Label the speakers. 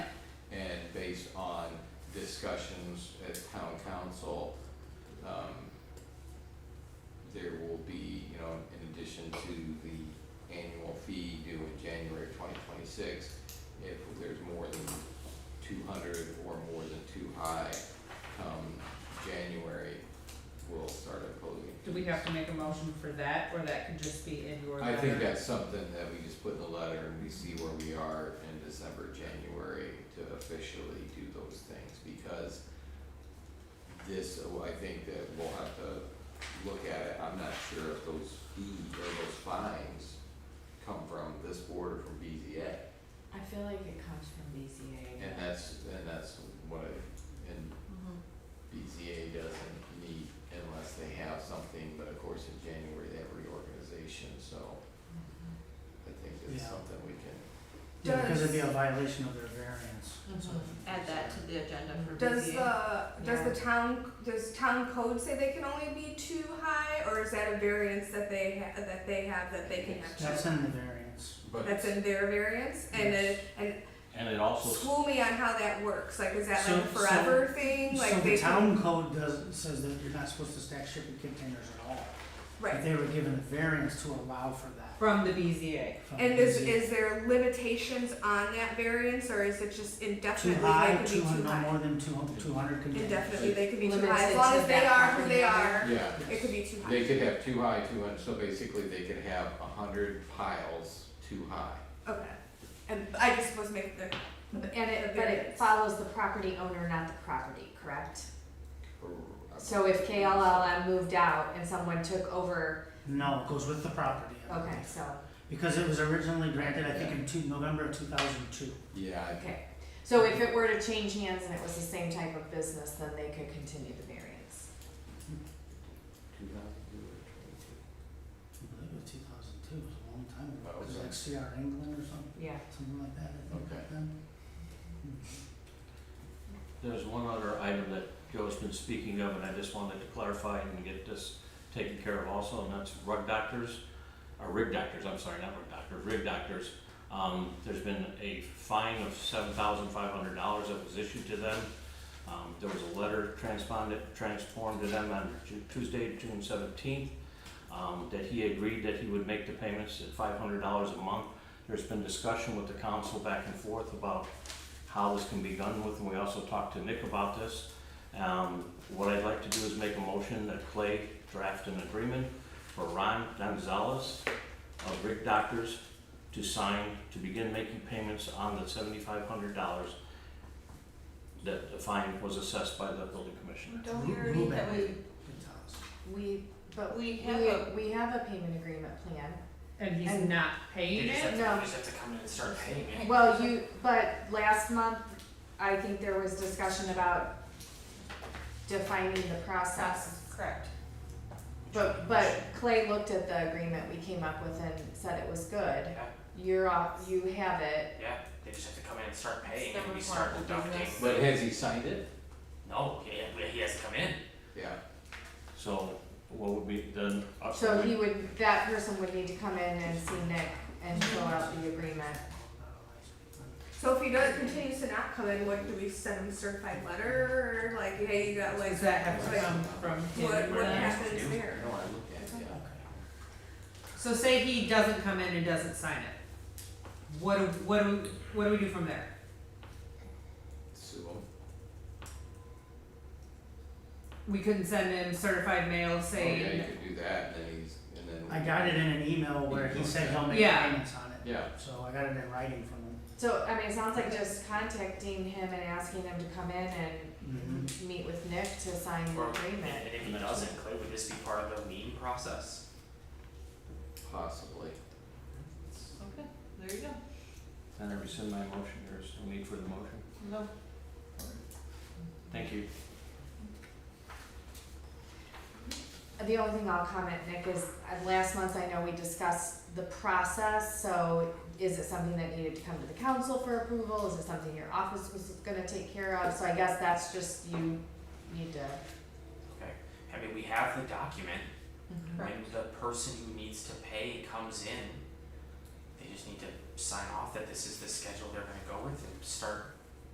Speaker 1: discussions at town council, um, there will be, you know, in addition to the annual fee due in January twenty twenty-six, if there's more than two hundred or more than too high, come January, we'll start imposing.
Speaker 2: Do we have to make a motion for that, or that could just be in your
Speaker 1: I
Speaker 2: letter?
Speaker 1: think that's something that we just put in the letter and we see where we are in December, January to officially do those things because this, oh, I think that we'll have to look at it. I'm not sure if those fees or those fines come from this board or from BZA.
Speaker 3: I feel like it comes from BCA.
Speaker 1: And that's, and that's what I, and BZA doesn't meet unless they have something, but of course in January they have reorganization, so I think it's
Speaker 4: Yeah.
Speaker 1: something we can
Speaker 4: Yeah, because it'd be a
Speaker 5: Does-
Speaker 4: violation of their variance. so I
Speaker 2: Mm-hmm.
Speaker 3: Mhm.
Speaker 4: think
Speaker 5: Add
Speaker 4: it's
Speaker 5: that
Speaker 4: a-
Speaker 5: to the agenda for BZA.
Speaker 3: Does
Speaker 5: the
Speaker 3: does the
Speaker 6: town, does town code say they can only be too high, or is that a variance that they ha- that they have that they can have
Speaker 4: That's
Speaker 6: two?
Speaker 4: in the variance.
Speaker 1: But
Speaker 6: That's in their variance, and
Speaker 4: Yes.
Speaker 6: then, and
Speaker 7: And it also,
Speaker 6: school me on how that works, like, is that like a
Speaker 4: So- so-
Speaker 6: forever thing,
Speaker 4: So
Speaker 6: like
Speaker 4: the
Speaker 6: they can,
Speaker 4: town code does, says that you're not supposed to stack shipping containers at all. But
Speaker 6: right?
Speaker 4: They were given a variance to allow for that. uh,
Speaker 2: From the BZA.
Speaker 4: from
Speaker 6: And is,
Speaker 4: BZA.
Speaker 6: is there limitations on that variance, or is it just
Speaker 4: Too
Speaker 6: indefinitely they
Speaker 4: high,
Speaker 6: can be
Speaker 4: two
Speaker 6: too
Speaker 4: hundred, no
Speaker 6: high?
Speaker 4: more than two hundred, two hundred containers.
Speaker 6: Indefinitely, they can be too high,
Speaker 3: Limited
Speaker 6: as long
Speaker 3: to
Speaker 6: as they
Speaker 3: that
Speaker 6: are who
Speaker 3: property
Speaker 6: they
Speaker 3: owner.
Speaker 6: are,
Speaker 1: Yeah,
Speaker 4: Yes.
Speaker 6: it could be too high.
Speaker 1: they could have too high, too much, so basically they could have a hundred piles too high.
Speaker 6: Okay, and I just was making the, the-
Speaker 3: And it, but it
Speaker 6: Variance.
Speaker 3: follows the property owner, not the property, correct?
Speaker 1: or-
Speaker 3: So if KLLM moved out and someone took over,
Speaker 4: No, it goes with the property. I
Speaker 3: okay,
Speaker 4: believe.
Speaker 3: so,
Speaker 4: Because it was originally granted, I think in two, November of two thousand two.
Speaker 1: Yeah, I-
Speaker 3: okay. So if it were to change hands and it was the same type of business, then they could continue the variance.
Speaker 1: two thousand two or twenty-two.
Speaker 4: I believe it was two thousand two, it was a long time ago. It was
Speaker 1: Okay.
Speaker 4: like CR England or something,
Speaker 3: Yeah.
Speaker 4: something like that, I think,
Speaker 1: Okay.
Speaker 4: back then.
Speaker 7: there's one other item that Joe's been speaking of, and I just wanted to clarify and get this taken care of also, and that's rug doctors, or rig doctors, I'm sorry, not rug doctors, rig doctors. Um, there's been a fine of seven thousand five hundred dollars that was issued to them. Um, there was a letter transponded, transformed to them on Ju- Tuesday, June seventeenth, um, that he agreed that he would make the payments at five hundred dollars a month. There's been discussion with the council back and forth about how this can be done with, and we also talked to Nick about this. Um, what I'd like to do is make a motion that Clay draft an agreement for Ron Gonzalez of Rick Doctors to sign, to begin making payments on the seventy-five hundred dollars that the fine was assessed by the building commissioner.
Speaker 5: Don't we
Speaker 4: Ru-
Speaker 5: already,
Speaker 4: Ruben
Speaker 5: that we,
Speaker 4: Gonzalez.
Speaker 3: We, but
Speaker 5: we
Speaker 3: we,
Speaker 5: have a,
Speaker 3: we have a payment agreement plan.
Speaker 2: And he's
Speaker 3: And-
Speaker 2: not paying
Speaker 8: They just
Speaker 2: it?
Speaker 3: No.
Speaker 8: have to, they just have to come in and start paying it.
Speaker 3: Well, you, but last month, I think there was discussion about defining the process.
Speaker 5: correct.
Speaker 3: But, but Clay looked at the agreement we came up with and said it was good.
Speaker 8: Yeah.
Speaker 3: You're off, you have it.
Speaker 8: Yeah, they just have to come in and start paying
Speaker 5: It's
Speaker 8: and we
Speaker 5: the
Speaker 8: start
Speaker 5: responsible
Speaker 8: deducting.
Speaker 5: business.
Speaker 1: But has he signed it?
Speaker 8: No, he, he has to come in.
Speaker 1: Yeah,
Speaker 7: So what would be then? uh,
Speaker 3: So he would, that person would need to come in and see Nick and fill out the agreement.
Speaker 6: So if he does, continues to not come in, what, do we send him a certified letter, or like, hey, you got like,
Speaker 2: Does that have to
Speaker 6: like,
Speaker 2: come from him?
Speaker 6: what,
Speaker 2: or
Speaker 6: what
Speaker 2: not?
Speaker 6: happens
Speaker 1: I
Speaker 6: there?
Speaker 1: know, I looked at it, yeah.
Speaker 2: So say he doesn't come in and doesn't sign it. What do, what do, what do we do from there?
Speaker 1: Sue him. Oh,
Speaker 2: We couldn't send him certified mail
Speaker 1: Oh, yeah,
Speaker 2: saying,
Speaker 1: you could do that, and then he's, and then.
Speaker 4: I got it in an email where he said he'll make
Speaker 2: Yeah.
Speaker 4: payments on it,
Speaker 1: Yeah,
Speaker 4: so I got it in writing from him.
Speaker 3: So, I mean, it sounds like just contacting him and asking him to come in
Speaker 1: Mm-hmm.
Speaker 3: and
Speaker 4: Mhm.
Speaker 3: meet with Nick to sign the
Speaker 8: Or, and
Speaker 3: agreement.
Speaker 8: and if he doesn't, Clay, would this be part of the lien process?
Speaker 1: possibly.
Speaker 5: Okay, there you go.
Speaker 7: Then I rescind my motion, there's no need for the motion.
Speaker 5: No.
Speaker 7: Thank you.
Speaker 3: The only thing I'll comment, Nick, is uh, last month I know we discussed the process, so is it something that needed to come to the council for approval? Is it something your office was gonna take care of? So I guess that's just you need to.
Speaker 8: Okay, I mean, we have the document. When
Speaker 5: Correct.
Speaker 8: the person who needs to pay comes in, they just need to sign off that this is the schedule they're gonna go with and start